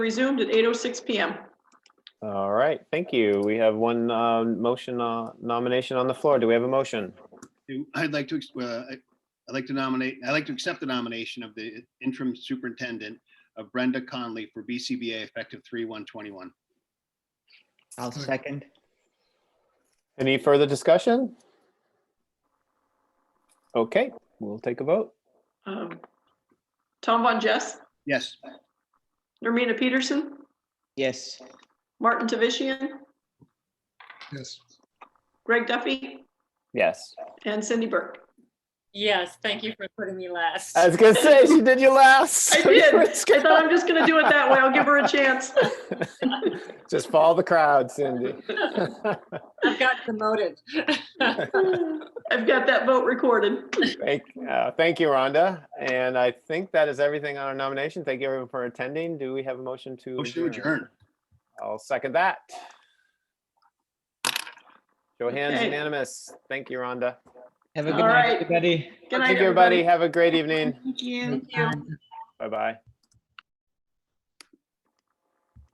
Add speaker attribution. Speaker 1: resumed at 8:06 PM.
Speaker 2: All right, thank you. We have one um, motion uh, nomination on the floor. Do we have a motion?
Speaker 3: I'd like to, ex- uh, I- I'd like to nominate, I'd like to accept the nomination of the interim superintendent of Brenda Conley for BCBA effective 3/1/21.
Speaker 4: I'll second.
Speaker 2: Any further discussion? Okay, we'll take a vote.
Speaker 1: Um, Tom Von Jess,
Speaker 3: Yes,
Speaker 1: Nermina Peterson,
Speaker 4: Yes,
Speaker 1: Martin Tavishian,
Speaker 5: Yes,
Speaker 1: Greg Duffy,
Speaker 2: Yes.
Speaker 1: and Cindy Burke.
Speaker 6: Yes, thank you for putting me last.
Speaker 2: I was gonna say, she did you last.
Speaker 1: I did. I thought I'm just going to do it that way. I'll give her a chance.
Speaker 2: Just follow the crowd, Cindy.
Speaker 6: I've got demoted.
Speaker 1: I've got that vote recorded.
Speaker 2: Thank, uh, thank you, Rhonda. And I think that is everything on our nomination. Thank you everyone for attending. Do we have a motion to?
Speaker 3: motion to adjourn.
Speaker 2: I'll second that. Show of hands
Speaker 1: Okay.
Speaker 2: unanimous. Thank you, Rhonda.
Speaker 4: have a good
Speaker 1: All
Speaker 4: night,
Speaker 1: right.
Speaker 4: everybody.
Speaker 1: Good
Speaker 2: Thank
Speaker 1: night,
Speaker 2: you, everybody. Have a great evening.
Speaker 1: Thank you.
Speaker 2: Bye-bye.